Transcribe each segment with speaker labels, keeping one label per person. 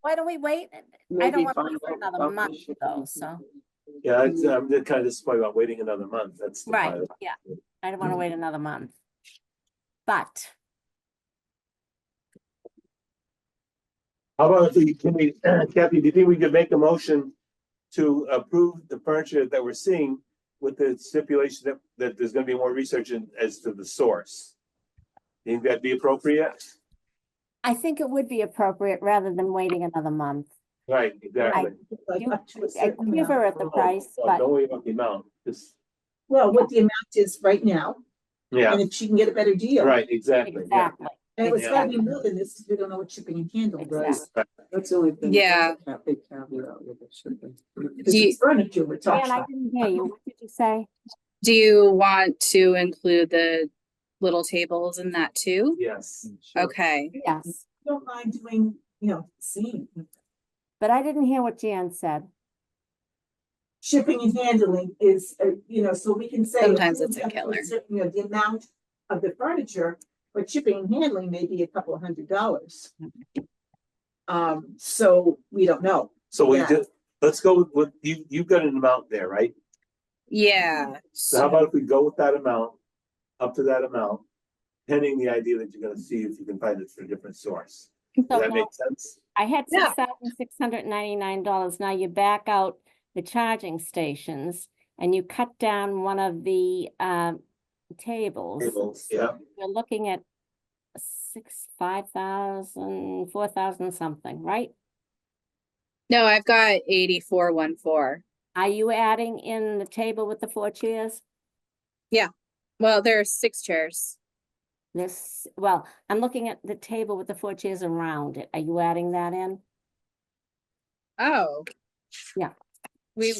Speaker 1: why don't we wait? I don't
Speaker 2: Maybe
Speaker 1: want to
Speaker 2: find
Speaker 1: wait for
Speaker 2: out
Speaker 1: another
Speaker 2: about the
Speaker 1: month
Speaker 2: shipping
Speaker 1: though,
Speaker 2: fee.
Speaker 1: so,
Speaker 3: Yeah, it's,
Speaker 4: uh,
Speaker 3: I'm just kind of disappointed about waiting another month. That's. the
Speaker 1: right,
Speaker 3: final.
Speaker 1: yeah, Mm. I don't want to wait another month. But,
Speaker 3: How about if we, can we, Kathy, do you think we could make a motion to approve the furniture that we're seeing with the stipulation that, that there's gonna be more research in, as to the source? Think that'd be appropriate?
Speaker 1: I think it would be appropriate rather than waiting another month.
Speaker 3: Right, exactly.
Speaker 1: You-
Speaker 2: Like up to a
Speaker 1: I
Speaker 2: certain amount.
Speaker 1: quiver at the price,
Speaker 3: Oh,
Speaker 1: but
Speaker 3: Don't worry about the amount, just,
Speaker 2: Well, what the amount is right now,
Speaker 3: yeah,
Speaker 2: and if she can get a better deal.
Speaker 3: right, exactly. yeah.
Speaker 1: exactly,
Speaker 2: And it's gotta be more than this, 'cause we don't know what she can handle, right?
Speaker 1: exactly.
Speaker 4: That's the only thing.
Speaker 5: Yeah.
Speaker 4: That big caveat with it should be.
Speaker 2: Because it's furniture we're talking
Speaker 1: Dan, I
Speaker 2: about.
Speaker 1: didn't hear you. What did you say?
Speaker 5: Do you want to include the little tables in that too?
Speaker 3: Yes,
Speaker 5: Okay,
Speaker 1: Yes,
Speaker 2: Don't mind doing, you know, seeing,
Speaker 1: but I didn't hear what Jan said.
Speaker 2: shipping and handling is, uh, you know, so we can say.
Speaker 5: Sometimes
Speaker 2: approved
Speaker 5: it's a
Speaker 2: up to
Speaker 5: killer.
Speaker 2: certain, You know, the amount of the furniture, but shipping and handling may be a couple of hundred dollars. Um, so we don't know.
Speaker 3: so we
Speaker 2: Yeah.
Speaker 3: just, let's go with, with- you, you've got an amount there, right?
Speaker 1: Mm-hmm.
Speaker 5: yeah.
Speaker 3: So how about if we go with that amount, up to that amount, pending the idea that you're gonna see if you can find it from a different source.
Speaker 1: So
Speaker 3: Does that
Speaker 1: now-
Speaker 3: make sense?
Speaker 1: I had
Speaker 5: Yeah.
Speaker 1: six thousand six hundred ninety-nine dollars. Now you back out the charging stations and you cut down one of the um tables.
Speaker 3: Tables, yeah,
Speaker 1: You're looking at six, five thousand, four thousand something, right?
Speaker 5: No, I've got eighty-four, one, four.
Speaker 1: Are you adding in the table with the four chairs?
Speaker 5: Well, there are six chairs.
Speaker 1: This, well, I'm looking at the table with the four chairs around it. Are you adding that in?
Speaker 5: Oh.
Speaker 1: Yeah.
Speaker 5: We,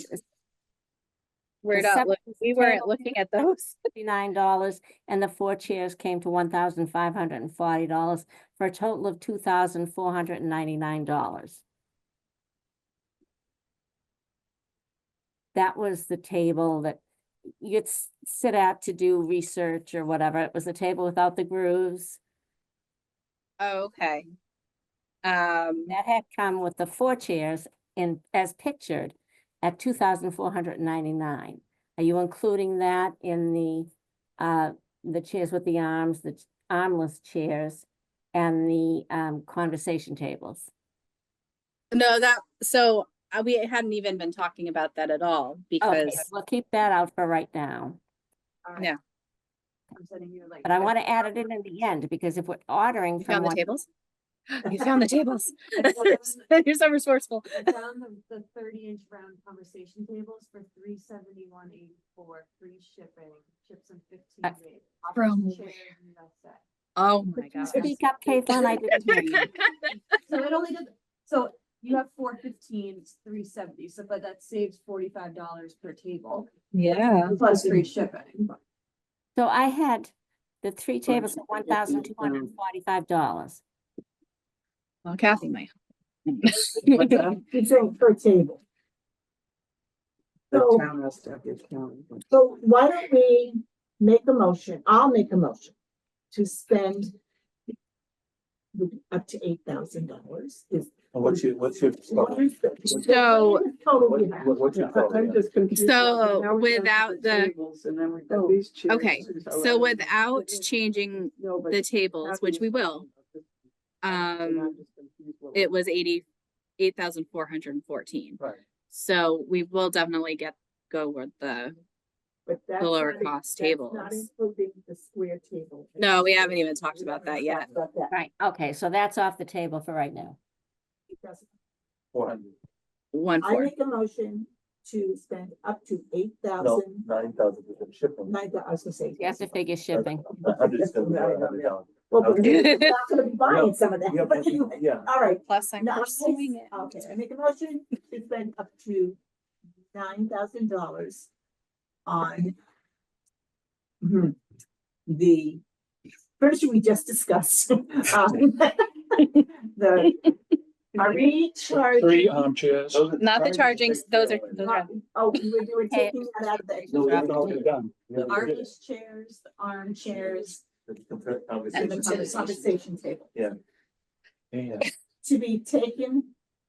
Speaker 5: we're
Speaker 1: The
Speaker 5: not,
Speaker 1: separate
Speaker 5: look- we weren't
Speaker 1: table.
Speaker 5: looking at those.
Speaker 1: Fifty-nine dollars and the four chairs came to one thousand five hundred and forty dollars for a total of two thousand four hundred and ninety-nine dollars. That was the table that you'd s- sit at to do research or whatever. It was a table without the grooves.
Speaker 5: Oh, okay. Um,
Speaker 1: That had come with the four chairs in, as pictured at two thousand four hundred and ninety-nine. Are you including that in the, uh, the chairs with the arms, the ch- armless chairs and the, um, conversation tables?
Speaker 5: no, that, so uh, we hadn't even been talking about that at all
Speaker 1: Okay,
Speaker 5: because,
Speaker 1: we'll keep that out for right now,
Speaker 5: Yeah.
Speaker 2: I'm sending you like.
Speaker 1: but I want to add it in at the end because if we're ordering
Speaker 5: you
Speaker 1: from
Speaker 5: found the
Speaker 1: one,
Speaker 5: tables? You found the tables. You're so resourceful.
Speaker 6: I found the, the thirty inch round conversation tables for three seventy one eighty four, free shipping, chips and
Speaker 1: Uh,
Speaker 6: fifteen days.
Speaker 5: from
Speaker 6: Offers
Speaker 5: where?
Speaker 6: chairs and that's it.
Speaker 5: Oh my
Speaker 6: Could you
Speaker 5: god.
Speaker 1: speak up, Caitlin, I didn't hear you.
Speaker 6: So it only did, so you have four fifteen, it's three seventy, so but that saves forty five dollars per table,
Speaker 5: Yeah.
Speaker 6: plus free shipping.
Speaker 1: So I had the three tables at one thousand two hundred and
Speaker 4: um,
Speaker 1: forty-five dollars.
Speaker 5: Well, Kathy might.
Speaker 2: It's a per table.
Speaker 4: The
Speaker 2: So-
Speaker 4: town has to have the accounting.
Speaker 2: So why don't we make a motion, I'll make a motion to spend the- up to eight thousand dollars is.
Speaker 3: and what's your, what's your?
Speaker 2: what is the-
Speaker 5: So-
Speaker 2: Total
Speaker 3: What,
Speaker 2: we have.
Speaker 3: what- what's your
Speaker 4: I'm
Speaker 3: program?
Speaker 4: just confused.
Speaker 5: So,
Speaker 4: because now we're down to
Speaker 5: without the- Oh,
Speaker 4: tables, And then we've got these chairs.
Speaker 5: Okay, So without changing the tables, which we will, um, it was eighty, eight thousand four hundred and fourteen.
Speaker 4: Right.
Speaker 5: So we will definitely get, go with the,
Speaker 2: But that's
Speaker 5: the lower
Speaker 2: not in-
Speaker 5: cost
Speaker 2: that's Not
Speaker 5: tables.
Speaker 2: including the square table.
Speaker 5: No, we haven't even talked about that
Speaker 2: We
Speaker 5: yet.
Speaker 2: haven't talked about that.
Speaker 1: Right, okay, so that's off the table for right now.
Speaker 3: Four hundred,
Speaker 5: one
Speaker 2: I
Speaker 5: four.
Speaker 2: make a motion to spend up to eight
Speaker 3: no,
Speaker 2: thousand,
Speaker 3: nine thousand with the shipping.
Speaker 2: nine, thou- I was gonna say.
Speaker 1: You have to figure shipping.
Speaker 3: A hundred is gonna be nine hundred dollars.
Speaker 2: Well, but
Speaker 5: Okay.
Speaker 2: we're not gonna be buying some of
Speaker 3: Yeah,
Speaker 2: that,
Speaker 3: but-
Speaker 2: but anyway,
Speaker 3: Yeah,
Speaker 2: all right.
Speaker 5: Plus I'm
Speaker 2: No, I- um,
Speaker 5: pursuing it.
Speaker 2: Okay, I make a motion to spend up to nine thousand dollars on mhm, the furniture we just discussed. Um, The, are
Speaker 7: Three
Speaker 2: we charging?
Speaker 7: armchairs.
Speaker 3: those are-
Speaker 5: Not the chargings, those are, those
Speaker 2: not-
Speaker 5: are,
Speaker 2: Oh, we were doing,
Speaker 1: Okay.
Speaker 2: taking that out of
Speaker 3: No, we haven't
Speaker 2: the.
Speaker 3: already done. We haven't done it.
Speaker 6: Armless chairs, the armchairs,
Speaker 3: The compar-
Speaker 2: And the
Speaker 3: conversation.
Speaker 2: conversation table
Speaker 7: Yeah.
Speaker 2: to be taken